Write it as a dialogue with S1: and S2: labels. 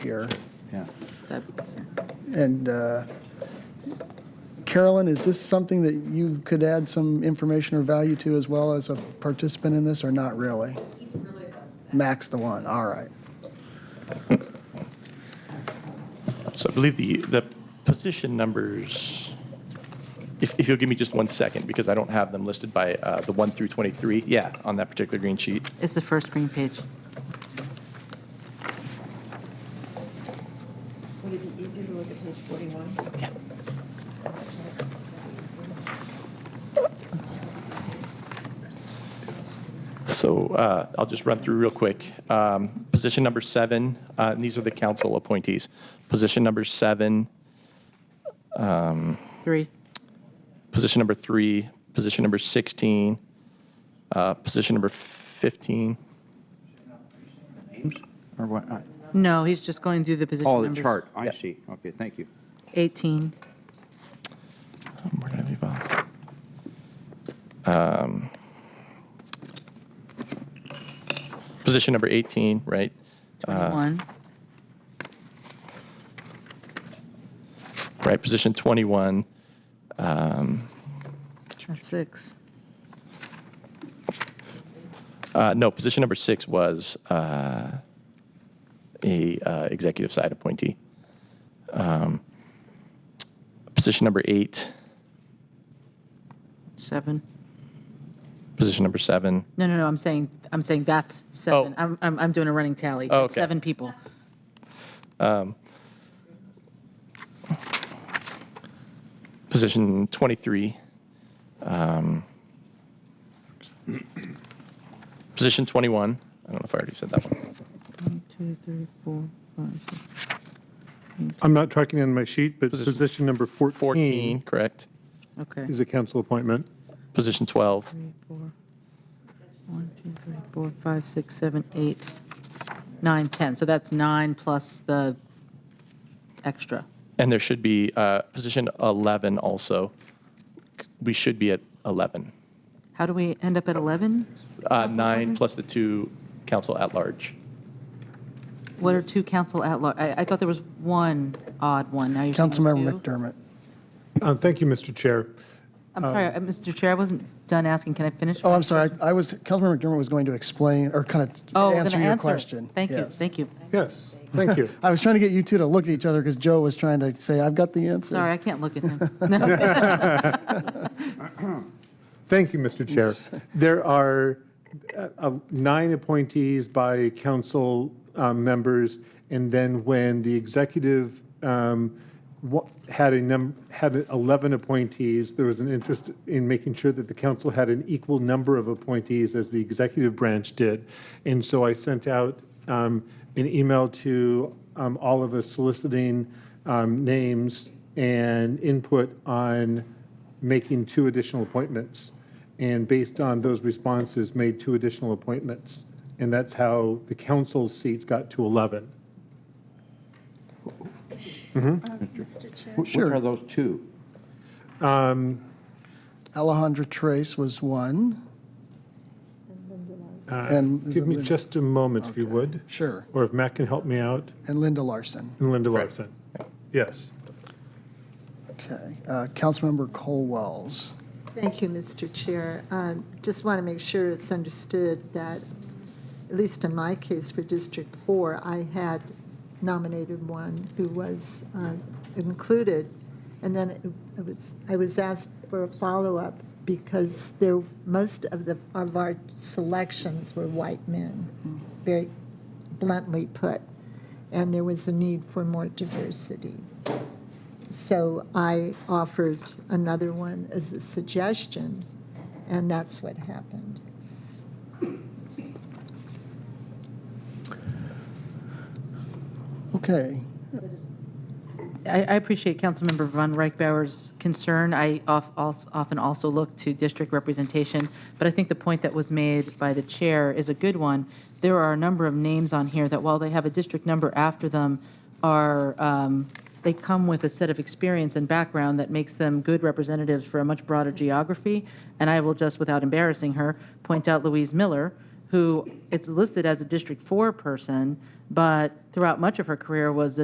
S1: here.
S2: Yeah.
S3: That-
S1: And uh, Carolyn, is this something that you could add some information or value to as well as a participant in this, or not really? Max the one, all right.
S4: So I believe the, the position numbers, if, if you'll give me just one second, because I don't have them listed by uh, the 1 through 23, yeah, on that particular green sheet.
S3: It's the first green page.
S5: Would it be easier to look at page 41?
S4: Yeah. So uh, I'll just run through real quick. Um, Position number seven, uh, and these are the council appointees. Position number seven,
S3: Three,
S4: position number three, position number 16, uh, position number 15.
S2: Or what? I-
S3: no, he's just going through the position
S2: Oh,
S3: number.
S2: the chart, I
S4: Yeah.
S2: see. Okay, thank you.
S3: 18,
S4: Um, Where did I leave off? Um, Position number 18, right? Uh,
S3: 21,
S4: Right, position 21. Um,
S3: that's six.
S4: uh, No, position number six was uh, a uh, executive side appointee. Um, Position number eight,
S3: Seven.
S4: position number seven.
S3: No, no, no, I'm saying, I'm saying that's seven. I'm, I'm, I'm doing a running tally.
S4: Oh, okay.
S3: Seven people.
S4: position 23. um, Position 21, I don't know if I already said that one.
S3: One, two, three, four, five, six.
S6: I'm not tracking in my sheet, but
S4: Position-
S6: position number
S4: 14,
S6: 14
S4: correct.
S3: Okay.
S6: is a council appointment.
S4: Position 12,
S3: Three, four. One, two, three, four, five, six, seven, eight, nine, 10. So that's nine plus the extra.
S4: and there should be uh, position 11 also. We should be at 11.
S3: How do we end up at 11?
S4: Uh, Nine
S3: members?
S4: plus the two council at large.
S3: What are two council at large? I, I thought there was one odd one. Now you're saying
S1: Councilmember
S3: two?
S1: McDermott.
S6: Uh, Thank you, Mr. Chair.
S3: I'm sorry, uh, Mr. Chair, I wasn't done asking. Can I finish?
S1: Oh,
S3: my-
S1: I'm sorry, I I was, Councilmember McDermott was going to explain, or kind
S3: Oh,
S1: of
S3: I'm gonna
S1: answer your
S3: answer.
S1: question.
S3: Thank you,
S1: Yes.
S3: thank you.
S6: Yes, thank you.
S1: I was trying to get you two to look at each other because Joe was trying to say, I've got the answer.
S3: Sorry, I can't look at him.
S6: Thank you, Mr. Chair. There are uh, uh, nine appointees by council uh, members, and then when the executive um, wa- had a num, had 11 appointees, there was an interest in making sure that the council had an equal number of appointees as the executive branch did. And so I sent out um, an email to um, all of us soliciting um, names and input on making two additional appointments, and based on those responses, made two additional appointments. And that's how the council seats got to 11.
S7: Mr. Chair,
S2: Wh- Which
S1: Sure.
S2: are those two?
S1: Alejandra Trace was one,
S6: Uh,
S1: And-
S6: Give me just a moment, if you would,
S1: sure,
S6: or if Matt can help me out,
S1: and Linda Larson.
S6: and Linda Larson. Yes.
S1: Okay, Uh, Councilmember Cole Wells.
S7: thank you, Mr. Chair. Um, Just want to make sure it's understood that, at least in my case for District 4, I had nominated one who was uh, included, and then it- it was, I was asked for a follow-up because there, most of the, of our selections were white men, very bluntly put, and there was a need for more diversity. So I offered another one as a suggestion, and that's what happened.
S1: Okay,
S3: I, I appreciate Councilmember Von Reichbauer's concern. I of- als- often also look to district representation, but I think the point that was made by the chair is a good one. There are a number of names on here that while they have a district number after them, are, um, they come with a set of experience and background that makes them good representatives for a much broader geography. And I will just, without embarrassing her, point out Louise Miller, who it's listed as a District 4 person, but throughout much of her career was